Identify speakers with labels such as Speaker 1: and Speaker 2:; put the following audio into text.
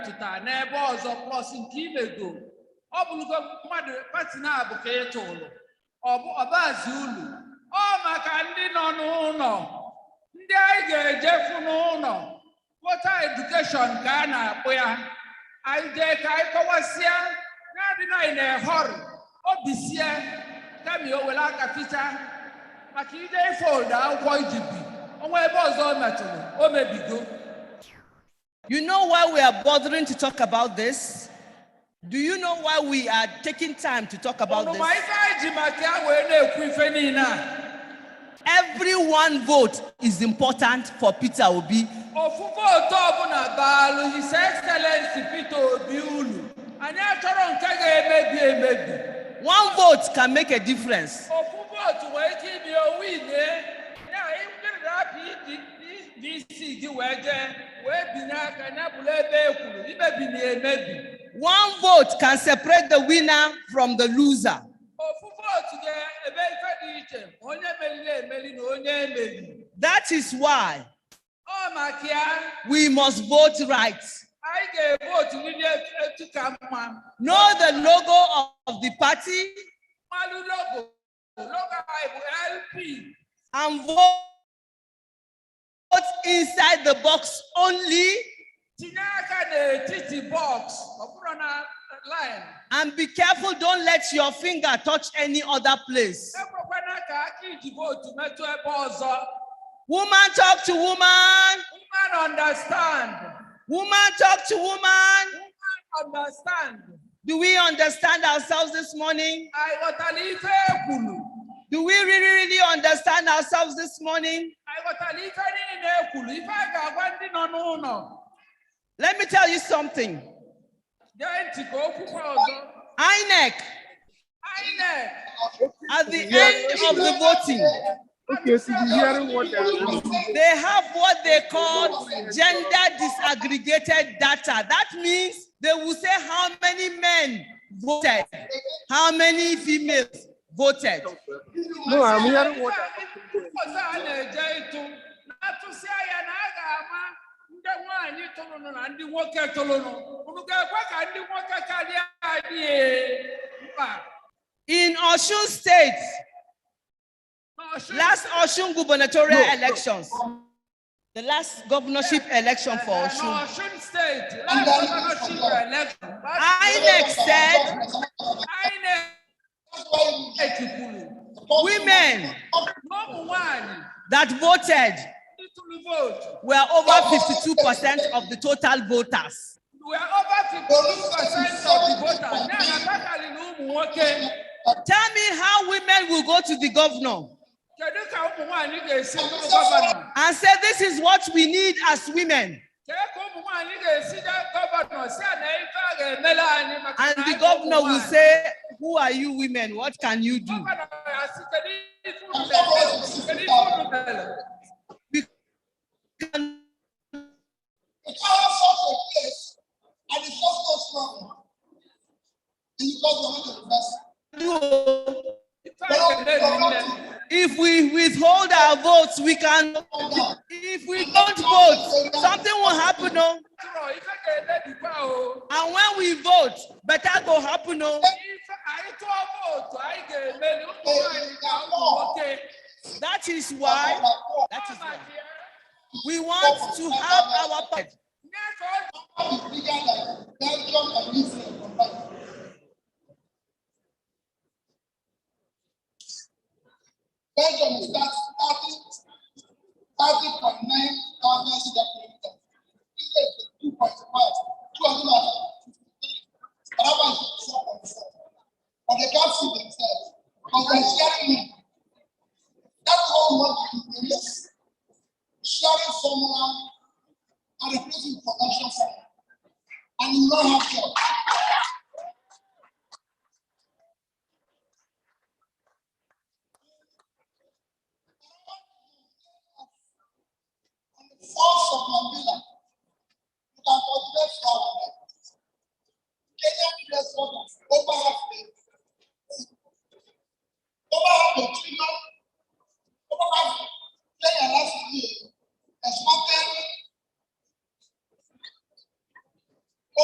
Speaker 1: pụta n'ebe ọzọ plọs nke imego ọ bụlụgo mmadụ pati na-abụ ka ị tụrụ ọbazi ulu ọ maka ndị nọ n'ụlọ ndị anyị ga-ejefu n'ụlọ kpọta edukeshọn ka a na-akpụ ya anyị jee ka anyị kọwasịa na-adịna anyị na-ehọrị obi sie kami o were aka ficha maka ije ifolda akwụkwọ iji bi ọnwa ebe ọzọ o metụrụ o mebigo
Speaker 2: You know why we are bothering to talk about this? Do you know why we are taking time to talk about
Speaker 1: ọnụma
Speaker 2: this?
Speaker 1: ife anyị ji maka ya wee na-ekwu ife niile a
Speaker 2: Every one vote is important for Peter Obi.
Speaker 1: ofu vootu ọbụla baalụ his excellency peter obi ulu anyị achọrọ nke ga-emebi emebi
Speaker 2: One vote can make a difference.
Speaker 1: ofu vootu wee ike ibi owine ya ịkpịrịrapụ dc gị wee jee wee binye aka nyabụla ebe e kwuru imebi na emebi
Speaker 2: One vote can separate the winner from the loser.
Speaker 1: ofu vootu ga-eme ife dị iche ma onye meriri emeri na onye emeriri
Speaker 2: That is why
Speaker 1: ọ maka ya
Speaker 2: we must vote right.
Speaker 1: anyị ga-evotu n'ili etu ka mma
Speaker 2: Know the logo of, of the party
Speaker 1: mmalụ logo logo anyị bụ lp
Speaker 2: and vote inside the box only
Speaker 1: tinye aka n'etiti bọks ọ bụrụ na lin
Speaker 2: and be careful. Don't let your finger touch any other place.
Speaker 1: ekwekwana ka aka iji votu metụ ebe ọzọ
Speaker 2: Woman talk to woman.
Speaker 1: woman understand
Speaker 2: Woman talk to woman.
Speaker 1: woman understand
Speaker 2: Do we understand ourselves this morning?
Speaker 1: anyị ghọtara ife e kwuru
Speaker 2: Do we really, really understand ourselves this morning?
Speaker 1: anyị ghọtara ife niile e kwuru ife a ga-agwa ndị nọ n'ụlọ
Speaker 2: Let me tell you something.
Speaker 1: gee ntị ka okwukwe ọzọ
Speaker 2: INEC,
Speaker 1: inec
Speaker 2: at the end of the voting,
Speaker 3: Okay, so the hearing what I
Speaker 2: they have what they call gender disaggregated data. That means they will say how many men voted, how many females voted.
Speaker 3: No, I'm
Speaker 1: Ihe
Speaker 3: hearing what I
Speaker 1: ọzọ a na-eje ịtụ na-atụsịa ya na a ga-ama ndị nwaanyị tụrụnụ na ndị nwoke tụrụnụ unu ga-ekwe ka ndị nwoke karịa anyị ee, mba
Speaker 2: In Oshun State,
Speaker 1: n'ọchụ
Speaker 2: last Oshun gubernatorial elections, the last governorship election for Oshun,
Speaker 1: n'ọchụn steeti last governorship election
Speaker 2: INEC said
Speaker 1: INEC kwuru
Speaker 2: women
Speaker 1: na ụmụ nwaanyị
Speaker 2: that voted
Speaker 1: ndị tụrụ vootu
Speaker 2: were over 52% of the total voters.
Speaker 1: were over 52 percent of the voters ya na takarị na ụmụ nwoke
Speaker 2: Tell me how women will go to the governor
Speaker 1: kedu ka ụmụ nwanyị ga-esi bụrụ gọvanọ
Speaker 2: and say, This is what we need as women.
Speaker 1: kee ka ụmụ nwanyị ga-esi na gọvanọ si a na ife a ga-emele anyị maka
Speaker 2: And
Speaker 1: na
Speaker 2: the
Speaker 1: anyị
Speaker 2: governor
Speaker 1: ụmụ
Speaker 2: will
Speaker 1: nwanyị.
Speaker 2: say, Who are you women? What can you do?
Speaker 1: gọvanọ ya site n'ife unu na-eme, site n'ife unu mere.
Speaker 2: We can-
Speaker 4: The child sought a place and it cost us money. And it cost the university.
Speaker 2: do.
Speaker 1: Ife a ga-eme dị nne.
Speaker 2: If we withhold our votes, we can. If we don't vote, something will happen. No?
Speaker 1: Atụrụ, ife ga-emebikwa o.
Speaker 2: And when we vote, better go happen. oh. No?
Speaker 1: Ife- anyị tụọ vootu, anyị ga-emeli ụmụ nwanyị na ụmụ nwoke.
Speaker 2: That is why. That
Speaker 1: Ọ
Speaker 2: is why
Speaker 1: maka ya,
Speaker 2: we want to have our
Speaker 1: nye
Speaker 2: part.
Speaker 1: ka ọ dị
Speaker 4: It's bigger than Belgium and Israel combined. Belgium is that thirty, thirty point nine thousand square kilometers. Israel is two point five, two hundred and fifty-three. Another one is four point seven. But they can't see themselves, because they're sharing it. That's what we want to do, yes. Sharing someone and replacing production someone and you don't have job.